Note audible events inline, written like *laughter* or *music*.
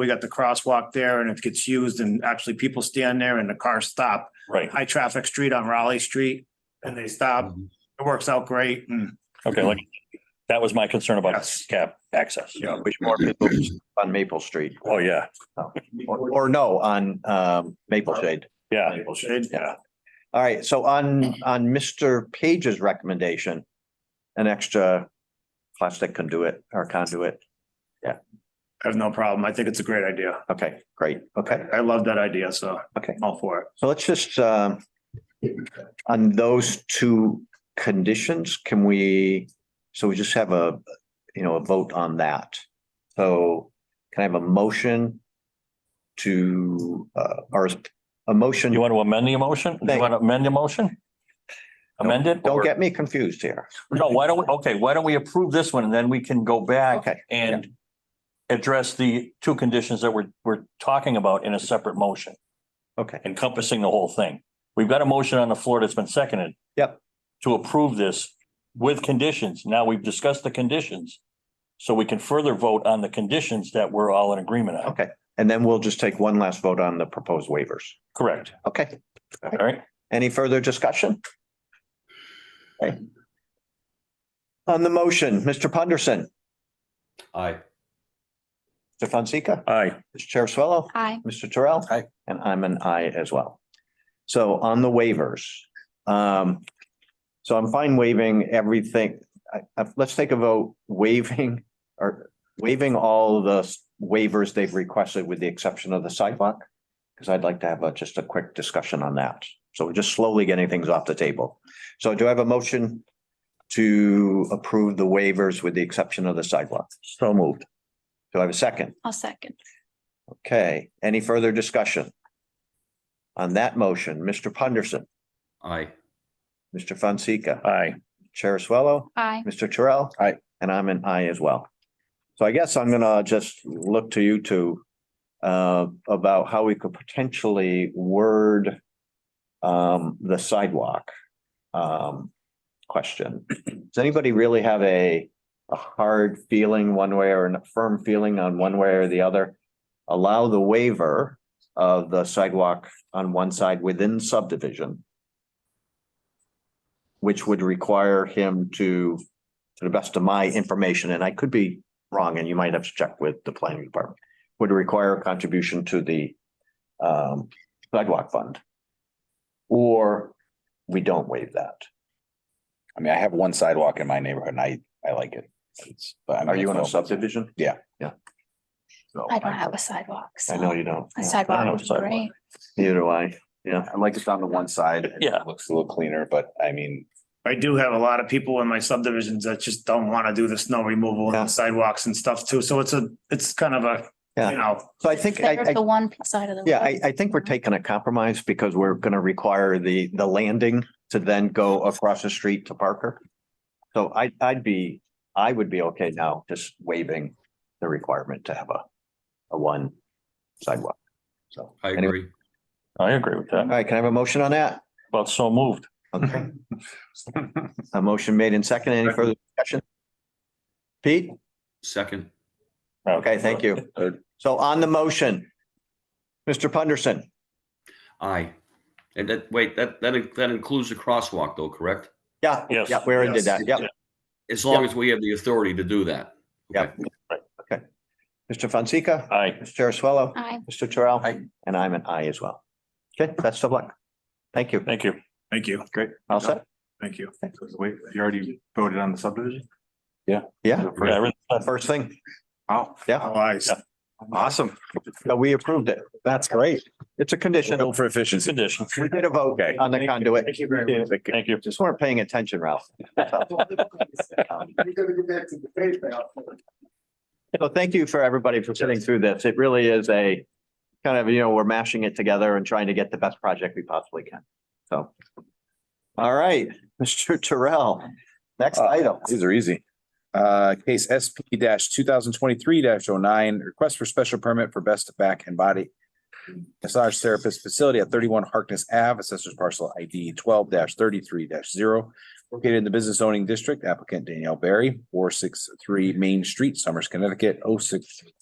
We got the crosswalk there and it gets used and actually people stand there and the cars stop. Right, High traffic street on Raleigh Street and they stop. Mm-hmm. It works out great and okay, like, that was my concern about Yes. cap access. Yeah. Wish more people on Maple Street Oh, yeah, or, or no, on, um, Maple Shade. yeah, Maple Shade. Yeah. All right. So on, on Mr. Page's recommendation, an extra plastic conduit or conduit. I have no problem. I think it's a great idea. Okay, great. Okay. I love that idea, so. Okay. I'm All for it. So let's just, um, on those two conditions, can we, so we just have a, you know, a vote on that. So can I have a motion to, uh, or a motion? you want to amend the motion? You Thank- want to amend the motion? Amend it? Don't or- get me confused here. No, why don't, we? okay, why don't we approve this one and then we can go back Okay, and address the two conditions that we're, we're talking about in a separate motion, okay, encompassing the whole thing. We've got a motion on the floor that's been seconded. Yep. To approve this with conditions. Now we've discussed the conditions. So we can further vote on the conditions that we're all in agreement on. okay. And then we'll just take one last vote on the proposed waivers. Correct. Okay, All right. any further discussion? Okay. On the motion, Mr. Punderson, Aye. Mr. Fonseca, Aye. Mr. Chair Swallow. Aye. Mr. Terrell? Aye. And I'm an aye as well. So on the waivers, um, so I'm fine waiving everything. I, I- let's take a vote waiving or waiving all the s- waivers they've requested with the exception of the sidewalk. Because I'd like to have a, just a quick discussion on that. So we're just slowly getting things off the table. So do I have a motion to approve the waivers with the exception of the sidewalk? So moved. Do I have a second? I'll second. Okay, any further discussion? On that motion, Mr. Punderson, Aye. Mr. Fonseca, Uh, Aye. Chair Swallow, Aye. Mr. Terrell. Aye. And I'm an aye as well. So I guess I'm gonna just look to you two uh, about how we could potentially word um, the sidewalk um, question. Does anybody really have a, a hard feeling one way or a firm feeling on one way or the other? Allow the waiver of the sidewalk on one side within subdivision, which would require him to, to the best of my information, and I could be wrong, and you might have to check with the planning department, would require a contribution to the um, sidewalk fund. Or we don't waive that. I mean, I have one sidewalk in my neighborhood and I, I like it. It's, but I mean, Are you in a it's- subdivision? Yeah. Yeah. So I don't have a sidewalk. so I know you don't. I A don't sidewalk have would a be sidewalk. great. Neither do I. Yeah. I like it on the one side. Yeah. It Looks a little cleaner, but I mean, I do have a lot of people in my subdivisions that just don't want to do the snow removal Yeah. and sidewalks and stuff too. So it's a, it's kind of a, Yeah. you know, So I think I, Better I if The one side of the. Yeah, I, road. I think we're taking a compromise because we're gonna require the, the landing to then go across the street to Parker. So I, I'd be, I would be okay now just waiving the requirement to have a, a one sidewalk. So. I anyway. agree. I agree with All that. right, can I have a motion on that? About so moved. Okay. A motion made in second. Any further discussion? Pete? Second. Okay, thank you. So on the motion, Mr. Punderson, Aye. And that, wait, that, that, in- that includes the crosswalk though, correct? yeah. Yes. Yeah, we already did that. Yeah. As long as we have the authority to do that. Yeah. Mr. Fonseca? Aye. Mr. Chair Swallow? Aye. Mr. Terrell? Aye. And I'm an aye as well. Okay, best of luck. Thank you. Thank you. thank you, All set? thank you. Wait, you already voted on the subdivision? Yeah, The Yeah, first- everything- first thing. Wow, Yeah, All eyes. awesome. so we approved it. That's great. It's a condition. for efficiency. Condition. We did a vote Okay. on the conduit. Thank you very much. Thank you. Just weren't paying attention, Ralph. *laughs* So thank you for everybody for sitting through this. It really is a kind of, you know, we're mashing it together and trying to get the best project we possibly can. So. All right, *laughs* Mr. Terrell, next item. These are easy. Uh, case SP two thousand twenty-three 9 request for special permit for best back and body massage therapist facility at thirty-one Harkness Ave, assessors parcel ID twelve thirty-three zero. Located in the business zoning district, applicant Danielle Berry, four six three Main Street, Summers, Connecticut, 063